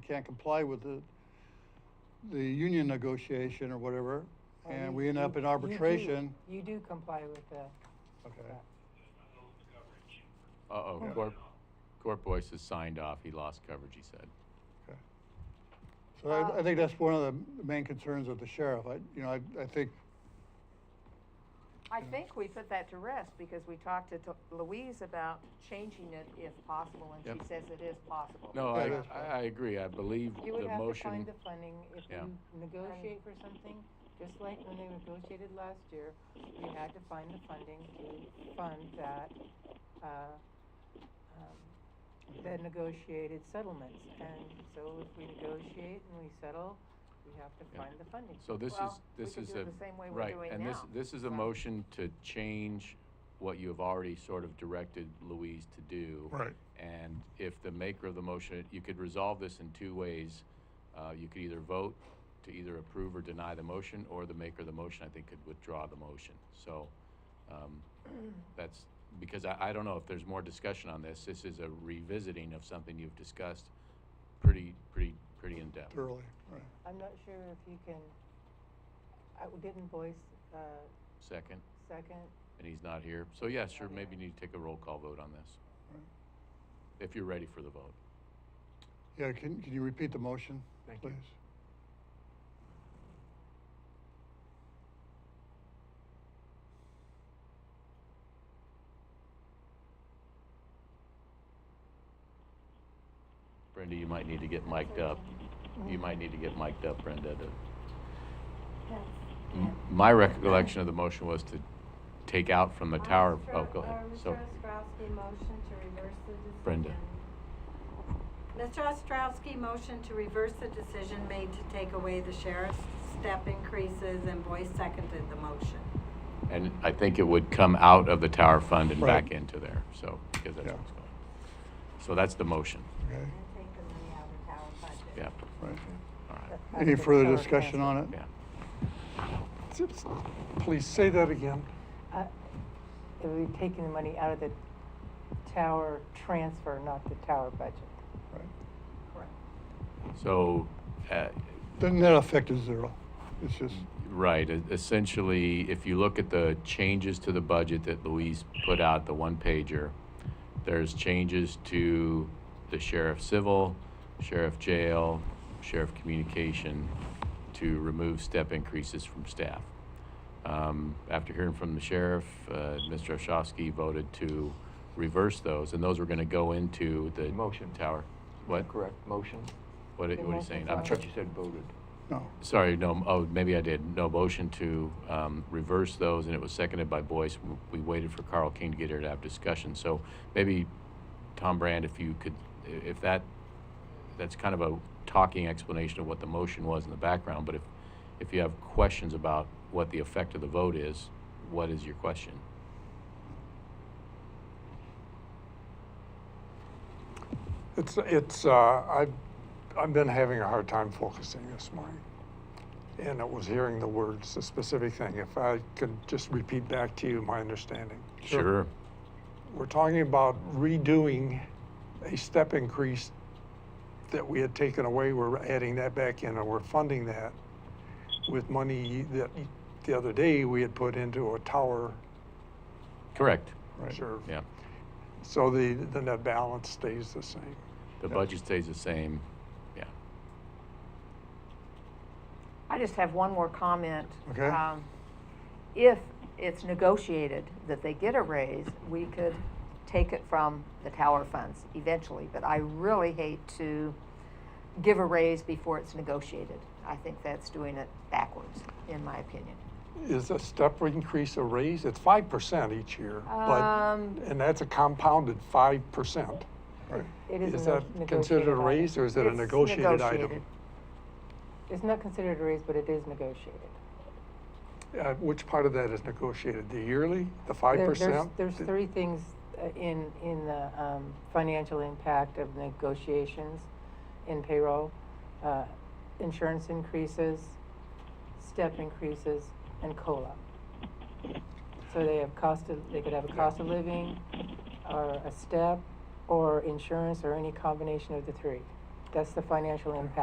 can't comply with the, the union negotiation or whatever, Well, and Oh, you- we end you- up in you do- arbitration. You do comply with that. Okay. Uh-oh, Yeah. Corp, Corp Boyce has signed off. He lost coverage, he said. Okay. So I, I Uh, think that's one of the main concerns of the sheriff. I, you know, I, I think, I think we put that to rest because we talked to to Louise about changing it if possible, and Yep. she says it is possible. No, Yeah, I, that's I- I agree. I believe You would the have to find motion, the funding if Yeah. you negotiate for something, just like when they negotiated last year, we had to find the funding to fund that, uh, um, the negotiated settlements. And so if we negotiate and we settle, we have to Yeah. find the funding. so this is, Well, we this could is do a, it the same way we're right, doing and this, now, this is a so. motion to change what you have already sort of directed Louise to do. Right. And if the maker of the motion, you could resolve this in two ways. Uh, you could either vote to either approve or deny the motion, or the maker of the motion, I think, could withdraw the motion. So, um, that's, because I, I don't know if there's more discussion on this. This is a revisiting of something you've discussed pretty, pretty, pretty in-depth. thoroughly, right. I'm not sure if you can, I didn't voice, uh, Second, second, and he's not here. So yeah, sure, maybe you need to take a roll call vote on this. If you're ready for the vote. Yeah, can, can you repeat the motion, Thank you. please? Brenda, you might need to get mic'd up. Mm-hmm. You might need to get mic'd up, Brenda. to- M- My recollection of the motion was to take out from the tower. Oh, go ahead. So, Mr. Ostrowski motion to reverse the decision. Brenda. Mr. Ostrowski motion to reverse the decision made to take away the sheriff's step increases, and Boyce seconded the motion. and I think it would come out of the tower fund and Right. back into there, so, because that's Yeah. what's going. So that's the motion. Okay, And take the money out of tower budget. Yeah, right. all right, Any further discussion on it? yeah. Please say that again. Uh, It would be taking the money out of the tower transfer, not the tower budget. Right. Correct. So, uh, The net effect is zero. It's just, right, e- essentially, if you look at the changes to the budget that Louise put out, the one pager, there's changes to the sheriff civil, sheriff jail, sheriff communication to remove step increases from staff. Um, after hearing from the sheriff, uh, Mr. Oshowski voted to reverse those, and those were gonna go into the Motion. tower. What, Correct, motion. what are The what are you motion's saying? on. I'm I tr- thought you said voted. no. Sorry, no, oh, maybe I did. No, motion to um, reverse those, and it was seconded by Boyce. W- We waited for Carl King to get here to have discussion. So maybe, Tom Brand, if you could, i- if that, that's kind of a talking explanation of what the motion was in the background, but if, if you have questions about what the effect of the vote is, what is your question? It's, it's, uh, I've, I've been having a hard time focusing this morning. And it was hearing the words, the specific thing. If I could just repeat back to you my understanding. Sure. We're talking about redoing a step increase that we had taken away. We're adding that back in and we're funding that with money that the other day we had put into a tower Correct, Right. reserve. yeah. So the, the net balance stays the same. The Yeah. budget stays the same, yeah. I just have one more comment. Okay. Um, If it's negotiated that they get a raise, we could take it from the tower funds eventually, but I really hate to give a raise before it's negotiated. I think that's doing it backwards, in my opinion. is a step increase a raise? It's five percent each year, but, Um, and that's a compounded five percent. Right. It is a Is neg- that considered negotiated a raise item. or is it a It's negotiated item? negotiated. It's not considered a raise, but it is negotiated. Uh, Which part of that is negotiated? The yearly, the five There- there's- percent? There's three things uh, in, in the um, financial impact of negotiations in payroll. uh, Insurance increases, step increases, and COLA. So they have cost of, they could have a cost of living, or a step, or insurance, or any combination of the three. That's the financial impact.